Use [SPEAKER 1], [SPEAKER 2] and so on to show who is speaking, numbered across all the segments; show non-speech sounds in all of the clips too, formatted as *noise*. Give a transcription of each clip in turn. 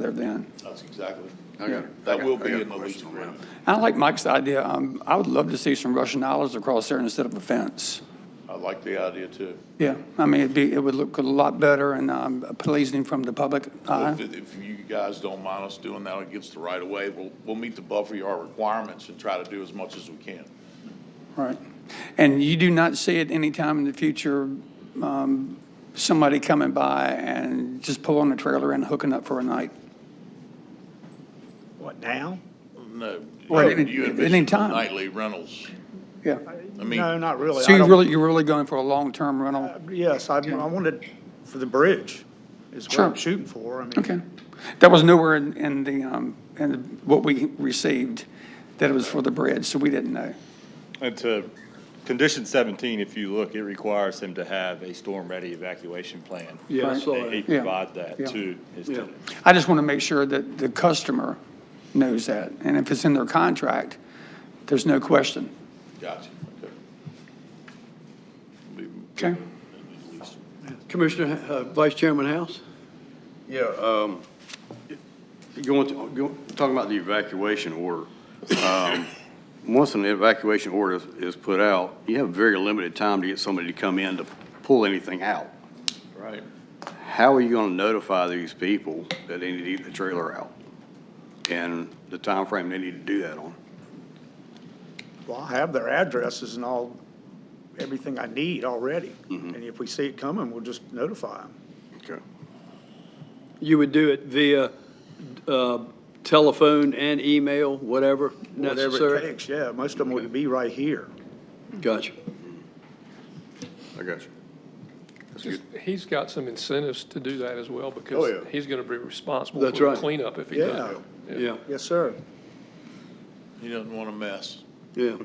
[SPEAKER 1] there then.
[SPEAKER 2] That's exactly.
[SPEAKER 3] I got it. I
[SPEAKER 2] That
[SPEAKER 3] got-
[SPEAKER 2] will
[SPEAKER 3] I
[SPEAKER 2] be
[SPEAKER 3] got a
[SPEAKER 2] in the lease
[SPEAKER 3] question on that.
[SPEAKER 2] agreement.
[SPEAKER 1] I like Mike's idea. Um, I would love to see some Russian olives across there instead of a fence.
[SPEAKER 2] I like the idea too.
[SPEAKER 1] Yeah, I mean, it'd be, it would look a lot better and um, pleasing from the public eye.
[SPEAKER 4] Uh-huh.
[SPEAKER 2] If, if you guys don't mind us doing that against the right of way, we'll, we'll meet the buffer yard requirements and try to do as much as we can.
[SPEAKER 1] Right. And you do not see at any time in the future, um, somebody coming by and just pulling a trailer and hooking up for a night?
[SPEAKER 5] What, now?
[SPEAKER 2] No.
[SPEAKER 1] Well,
[SPEAKER 2] you-
[SPEAKER 1] at-
[SPEAKER 2] you
[SPEAKER 1] at
[SPEAKER 2] envision
[SPEAKER 1] any time.
[SPEAKER 2] Nightly rentals.
[SPEAKER 1] Yeah.
[SPEAKER 2] I mean,
[SPEAKER 5] No, not really.
[SPEAKER 1] So
[SPEAKER 5] I
[SPEAKER 1] you're
[SPEAKER 5] don't-
[SPEAKER 1] really, you're really going for a long-term rental?
[SPEAKER 5] Yes, I, I wanted for the bridge is what
[SPEAKER 1] Sure.
[SPEAKER 5] I'm shooting for. I mean,
[SPEAKER 1] Okay. That was nowhere in, in the, um, in what we received, that it was for the bridge, so we didn't know.
[SPEAKER 6] And to condition 17, if you look, it requires him to have a storm-ready evacuation plan.
[SPEAKER 7] Yeah, I
[SPEAKER 1] Right.
[SPEAKER 7] saw
[SPEAKER 6] He
[SPEAKER 7] that.
[SPEAKER 6] provide that
[SPEAKER 1] Yeah.
[SPEAKER 6] to his
[SPEAKER 7] Yeah.
[SPEAKER 6] tenant.
[SPEAKER 1] I just want to make sure that the customer knows that, and if it's in their contract, there's no question.
[SPEAKER 2] Gotcha, okay. Be-
[SPEAKER 1] Okay.
[SPEAKER 2] at least.
[SPEAKER 7] Commissioner, uh, Vice Chairman House?
[SPEAKER 3] Yeah, um, going, to- go- talking about the evacuation order. um, Once an evacuation order is- is put out, you have very limited time to get somebody to come in to pull anything out.
[SPEAKER 2] Right.
[SPEAKER 3] How are you going to notify these people that they need to get the trailer out? And the time frame they need to do that on?
[SPEAKER 5] Well, I have their addresses and all, everything I need already. And if we see it coming, we'll just notify them.
[SPEAKER 3] Okay.
[SPEAKER 7] You would do it via uh, telephone and email, whatever
[SPEAKER 5] Whatever it
[SPEAKER 7] necessary?
[SPEAKER 5] takes, yeah. Most of them would be right here.
[SPEAKER 7] Gotcha.
[SPEAKER 3] I got you. That's good.
[SPEAKER 8] Just- He's got some incentives to do that as well,
[SPEAKER 3] Oh,
[SPEAKER 8] because
[SPEAKER 3] yeah.
[SPEAKER 8] he's gonna be responsible
[SPEAKER 7] That's
[SPEAKER 8] for the
[SPEAKER 7] right.
[SPEAKER 8] cleanup if he
[SPEAKER 5] Yeah.
[SPEAKER 8] does.
[SPEAKER 7] Yeah,
[SPEAKER 5] Yes, sir.
[SPEAKER 2] He doesn't want a mess.
[SPEAKER 7] yeah.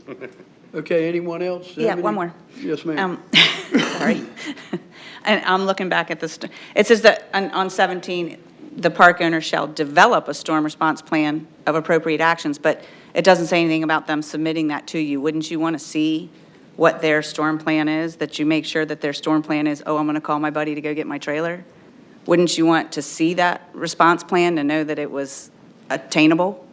[SPEAKER 7] Okay, anyone else? have
[SPEAKER 4] Yeah,
[SPEAKER 7] any-
[SPEAKER 4] one more.
[SPEAKER 7] Yes, ma'am.
[SPEAKER 4] Um,
[SPEAKER 7] *laughs*
[SPEAKER 4] Sorry. And I'm looking back at this, it says that on- on 17, the park owner shall develop a storm response plan of appropriate actions, but it doesn't say anything about them submitting that to you. Wouldn't you want to see what their storm plan is, that you make sure that their storm plan is, oh, I'm going to call my buddy to go get my trailer? Wouldn't you want to see that response plan to know that it was attainable?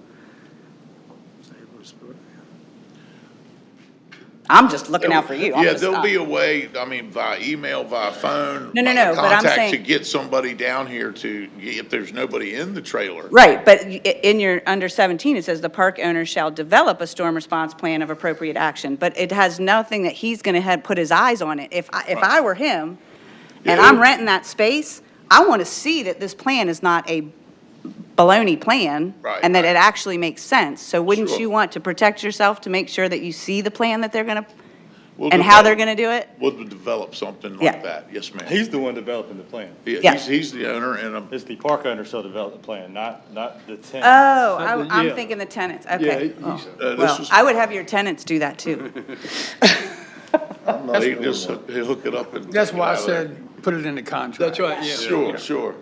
[SPEAKER 4] I'm just looking out for you. I'm
[SPEAKER 2] Yeah,
[SPEAKER 4] just-
[SPEAKER 2] there'll be a way, I mean, via email, via phone.
[SPEAKER 4] No, no,
[SPEAKER 2] via
[SPEAKER 4] no, but I'm
[SPEAKER 2] Contact to
[SPEAKER 4] saying-
[SPEAKER 2] get somebody down here to, if there's nobody in the trailer.
[SPEAKER 4] Right, but y- i- in your, under 17, it says the park owner shall develop a storm response plan of appropriate action, but it has nothing that he's going to have, put his eyes on it. If, I if I were him, and
[SPEAKER 2] Yeah.
[SPEAKER 4] I'm renting that space, I want to see that this plan is not a baloney plan,
[SPEAKER 2] Right,
[SPEAKER 4] and that
[SPEAKER 2] right.
[SPEAKER 4] it actually makes sense. So wouldn't
[SPEAKER 2] Sure.
[SPEAKER 4] you want to protect yourself to make sure that you see the plan that they're going to,
[SPEAKER 2] We'll
[SPEAKER 4] and how
[SPEAKER 2] develop-
[SPEAKER 4] they're going to do it?
[SPEAKER 2] We'll develop something
[SPEAKER 4] Yeah.
[SPEAKER 2] like that, yes, ma'am.
[SPEAKER 6] He's the one developing the plan.
[SPEAKER 2] Yeah,
[SPEAKER 4] Yeah.
[SPEAKER 2] He's, he's the owner and I'm,
[SPEAKER 6] It's the park owner shall develop the plan, not, not the tenant.
[SPEAKER 4] Oh, I-
[SPEAKER 7] Yeah.
[SPEAKER 4] I'm thinking the tenants,
[SPEAKER 7] Yeah,
[SPEAKER 4] okay. Oh,
[SPEAKER 7] he's-
[SPEAKER 2] uh, this
[SPEAKER 4] Well,
[SPEAKER 2] is,
[SPEAKER 4] I would have your tenants do that,
[SPEAKER 2] *laughs*
[SPEAKER 4] too.
[SPEAKER 2] they just hook he'll hook it up and.
[SPEAKER 1] That's why I
[SPEAKER 2] get it out of
[SPEAKER 1] said, put it in the contract.
[SPEAKER 7] That's right,
[SPEAKER 2] there.
[SPEAKER 7] yeah.
[SPEAKER 2] Sure, sure.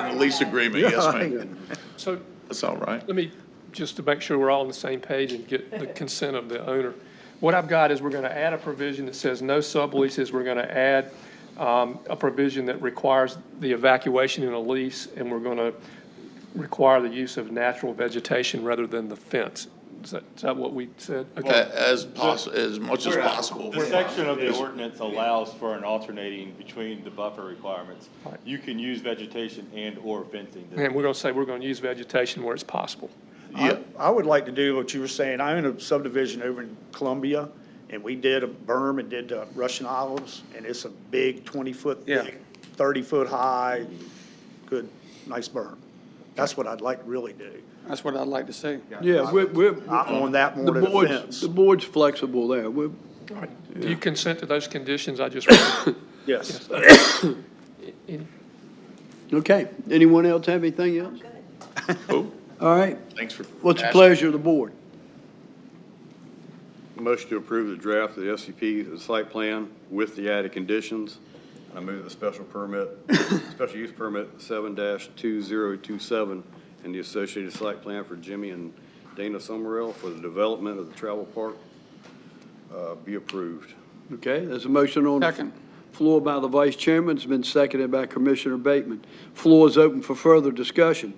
[SPEAKER 2] In the lease agreement, yes,
[SPEAKER 1] *laughs*
[SPEAKER 2] ma'am.
[SPEAKER 8] So
[SPEAKER 2] That's all right.
[SPEAKER 8] let me, just to make sure we're all on the same page and get the consent of the owner. What I've got is we're gonna add a provision that says no subleases, we're gonna add, um, a provision that requires the evacuation in a lease, and we're gonna require the use of natural vegetation rather than the fence. Is that, is that what we said?
[SPEAKER 2] A-
[SPEAKER 8] Okay.
[SPEAKER 2] As poss, as much as possible.
[SPEAKER 6] The section of the ordinance allows for an alternating between the buffer requirements. You can use vegetation and/or fencing.
[SPEAKER 8] And we're gonna say we're gonna use vegetation where it's possible.
[SPEAKER 2] Yeah.
[SPEAKER 5] I would like to do what you were saying. I own a subdivision over in Columbia, and we did a berm and did uh, Russian olives, and it's a big 20-foot
[SPEAKER 1] Yeah.
[SPEAKER 5] thick, 30-foot high, good, nice berm. That's what I'd like to really do.
[SPEAKER 1] That's what I'd like to see.
[SPEAKER 7] Yeah, we're, we're,
[SPEAKER 5] I'm on that
[SPEAKER 7] the
[SPEAKER 5] more than a
[SPEAKER 7] board's,
[SPEAKER 5] fence.
[SPEAKER 7] the board's flexible there. We're,
[SPEAKER 8] All right. Do you consent to those conditions I just read?
[SPEAKER 5] Yes.
[SPEAKER 8] Any-
[SPEAKER 7] okay. Anyone else have anything else?
[SPEAKER 2] Cool.
[SPEAKER 7] All right.
[SPEAKER 2] Thanks for.
[SPEAKER 7] What's the
[SPEAKER 2] asking.
[SPEAKER 7] pleasure of the board?
[SPEAKER 3] Motion to approve the draft of the SCP, the site plan with the added conditions. I move the special permit, *coughs* special use permit seven two zero two seven and the associated site plan for Jimmy and Dana Summerell for the development of the travel park uh, be approved.
[SPEAKER 7] Okay, there's a motion on. the
[SPEAKER 1] Second.
[SPEAKER 7] Floor by the vice chairman, it's been seconded by Commissioner Bateman. Floor is open for further discussion.